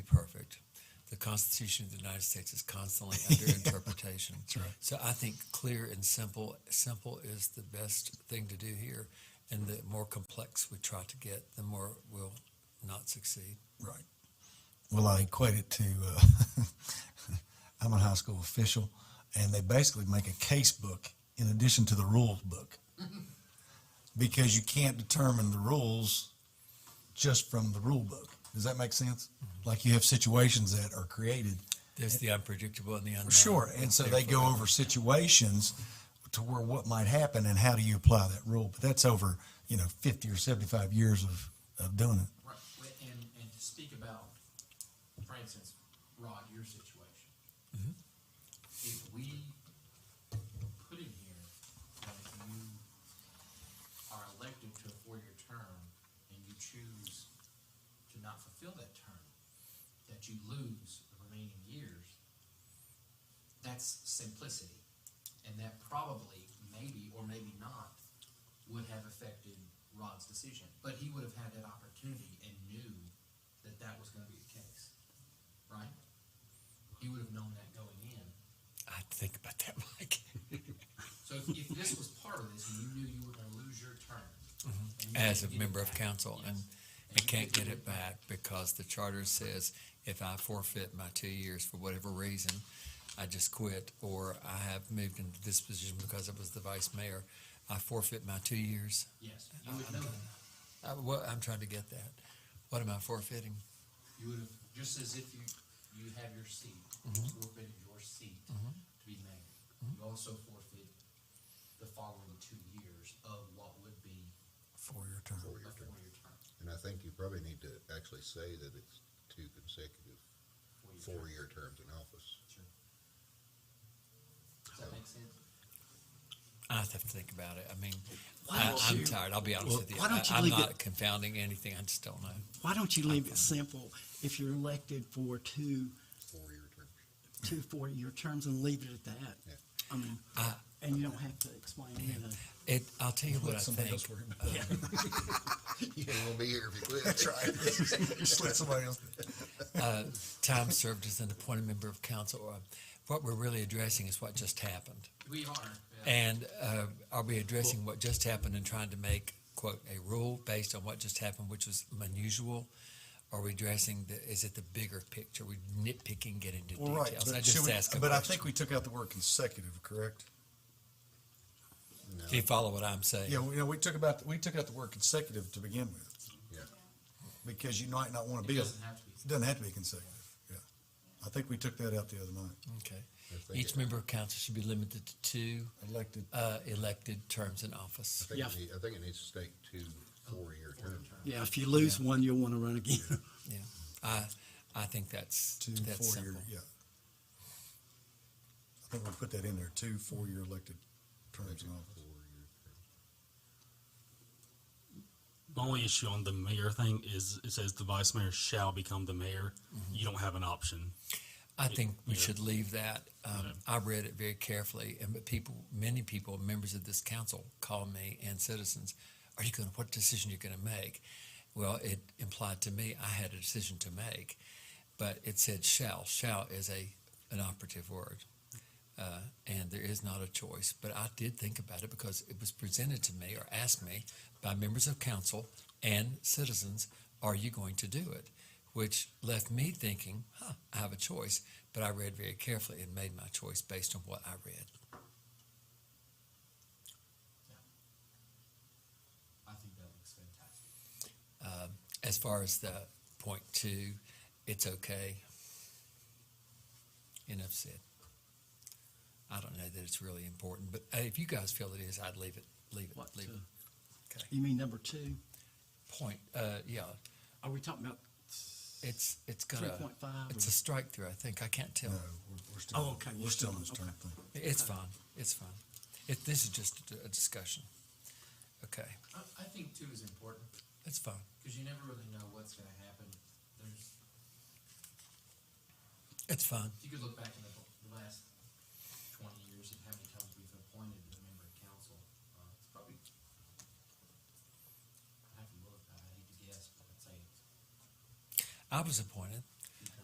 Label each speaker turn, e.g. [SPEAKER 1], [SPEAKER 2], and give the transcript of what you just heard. [SPEAKER 1] Constitution of the United States is constantly under interpretation. That's
[SPEAKER 2] right.
[SPEAKER 1] So I think clear and simple, simple is the best thing to do here. And the more complex we try to get, the more we'll not succeed.
[SPEAKER 2] Right. Well, I equate it to uh, I'm a high school official, and they basically make a case book in addition to the rules book because you can't determine the rules just from the rule book. Does that make sense? Like you have situations that are created.
[SPEAKER 1] There's the unpredictable and the unknown.
[SPEAKER 2] Sure. And so they go over situations to where what might happen and how do you apply that rule. But that's over, you know, 50 or 75 years of, of doing it.
[SPEAKER 3] Right, but- and, and to speak about, for instance, Rod, your situation. If we put in here that if you are elected to a four-year term and you choose to not fulfill that term, that you lose the remaining years, that's simplicity. And that probably, maybe, or maybe not, would have affected Rod's decision. But he would have had that opportunity and knew that that was going to be the case, right? He would have known that going in.
[SPEAKER 1] I think about that, Mike.
[SPEAKER 3] So if, if this was part of this, and you knew you were going to lose your term. and you
[SPEAKER 1] As a
[SPEAKER 3] didn't get it
[SPEAKER 1] member of
[SPEAKER 3] back,
[SPEAKER 1] council and,
[SPEAKER 3] yes,
[SPEAKER 1] and
[SPEAKER 3] you
[SPEAKER 1] can't
[SPEAKER 3] didn't
[SPEAKER 1] get it back because the charter says if I forfeit my two years for whatever reason, I just quit or I have moved into this position because I was the vice mayor, I forfeit my two years.
[SPEAKER 3] Yes, you would know that.
[SPEAKER 1] I, well, Uh, I'm trying to get that. What am I forfeiting?
[SPEAKER 3] You would have, just as if you, you have your seat,
[SPEAKER 1] Mm-hmm.
[SPEAKER 3] forfeited your seat to be mayor. You also forfeit the following two years of what would be
[SPEAKER 2] Four-year term.
[SPEAKER 3] a four-year term.
[SPEAKER 4] And I think you probably need to actually say that it's two consecutive
[SPEAKER 3] four-year term.
[SPEAKER 4] four-year terms in office.
[SPEAKER 3] Sure. Does that make sense?
[SPEAKER 1] I have to think about it. I mean, I, I'm tired. I'll be honest
[SPEAKER 5] Well,
[SPEAKER 1] with you.
[SPEAKER 5] why don't
[SPEAKER 1] I,
[SPEAKER 5] you
[SPEAKER 1] I'm
[SPEAKER 5] leave
[SPEAKER 1] not
[SPEAKER 5] it-
[SPEAKER 1] confounding anything. I just don't know.
[SPEAKER 5] Why don't you leave it simple? If you're elected for two,
[SPEAKER 4] Four-year terms.
[SPEAKER 5] two four-year terms and leave it at
[SPEAKER 4] Yeah.
[SPEAKER 5] that. I mean, and you don't have to explain anything.
[SPEAKER 1] It. I'll tell you what I
[SPEAKER 2] Let somebody
[SPEAKER 1] think.
[SPEAKER 2] else worry about it.
[SPEAKER 4] You won't be here if you quit.
[SPEAKER 2] That's right. Just let somebody else.
[SPEAKER 1] time served as an appointed member of council. Uh, What we're really addressing is what just happened.
[SPEAKER 3] We are. yeah.
[SPEAKER 1] And uh, are we addressing what just happened and trying to make, quote, a rule based on what just happened, which was unusual? Are we addressing the, is it the bigger picture? We nitpicking, getting into
[SPEAKER 2] Well, right,
[SPEAKER 1] details? I
[SPEAKER 2] but should
[SPEAKER 1] just
[SPEAKER 2] we,
[SPEAKER 1] ask a
[SPEAKER 2] but I
[SPEAKER 1] question.
[SPEAKER 2] think we took out the word consecutive, correct?
[SPEAKER 4] No,
[SPEAKER 1] Do you follow what I'm saying?
[SPEAKER 2] Yeah, we- you know, we took about, we took out the word consecutive to begin with,
[SPEAKER 4] yeah.
[SPEAKER 2] because you might not want to
[SPEAKER 3] It
[SPEAKER 2] be, it
[SPEAKER 3] doesn't have to be.
[SPEAKER 2] doesn't have to be consecutive, yeah. I think we took that out the other night,
[SPEAKER 1] Okay.
[SPEAKER 4] If they
[SPEAKER 1] Each
[SPEAKER 4] get-
[SPEAKER 1] member of council should be limited to two
[SPEAKER 2] elected,
[SPEAKER 1] uh, elected terms in office.
[SPEAKER 4] I think
[SPEAKER 5] Yeah.
[SPEAKER 4] it need- I think it needs to state two four-year terms.
[SPEAKER 5] Yeah, if you lose one, you'll want to run again.
[SPEAKER 1] Yeah. I, I think that's,
[SPEAKER 2] two,
[SPEAKER 1] that's
[SPEAKER 2] four-year,
[SPEAKER 1] simple.
[SPEAKER 2] yeah. I think we put that in there, two, four-year elected terms in office.
[SPEAKER 4] Four-year terms.
[SPEAKER 6] My only issue on the mayor thing is it says the vice mayor shall become the mayor. You don't have an option.
[SPEAKER 1] I think we
[SPEAKER 6] yeah.
[SPEAKER 1] should leave that. Um, I read it very carefully, and but people, many people, members of this council, call me and citizens, "Are you going? to What decision you're going to make?" Well, it implied to me I had a decision to make, but it said "shall." "Shall" is a an operative word, uh, and there is not a choice. But I did think about it because it was presented to me or asked me by members of council and citizens, "Are you going to do it?" which left me thinking, huh, I have a choice. But I read very carefully and made my choice based on what I read.
[SPEAKER 3] I think that looks fantastic.
[SPEAKER 1] As far as the point two, it's okay. Enough said. I don't know that it's really important, but uh, if you guys feel it is, I'd leave it, leave it,
[SPEAKER 5] What
[SPEAKER 1] leave
[SPEAKER 5] two?
[SPEAKER 1] it. Okay.
[SPEAKER 5] You mean number two?
[SPEAKER 1] Point, uh, yeah,
[SPEAKER 5] Are we talking about?
[SPEAKER 1] it's, it's got a,
[SPEAKER 5] 3.5
[SPEAKER 1] it's
[SPEAKER 5] or-
[SPEAKER 1] a strike through, I think. I can't tell.
[SPEAKER 2] No, we're, we're still,
[SPEAKER 5] Oh, okay,
[SPEAKER 2] we're
[SPEAKER 5] you're
[SPEAKER 2] still on
[SPEAKER 5] still-
[SPEAKER 2] this term thing.
[SPEAKER 1] It's fine, it's fine. It, this is just a- a discussion. Okay,
[SPEAKER 3] I, I think two is important,
[SPEAKER 1] it's fine.
[SPEAKER 3] because you never really know what's going to happen. There's,
[SPEAKER 1] It's fine.
[SPEAKER 3] if you could look back in the, the last twenty years and how many times we've appointed a member of council, uh, it's probably, I have to look, I hate to guess, but I'd say it's
[SPEAKER 1] I was appointed.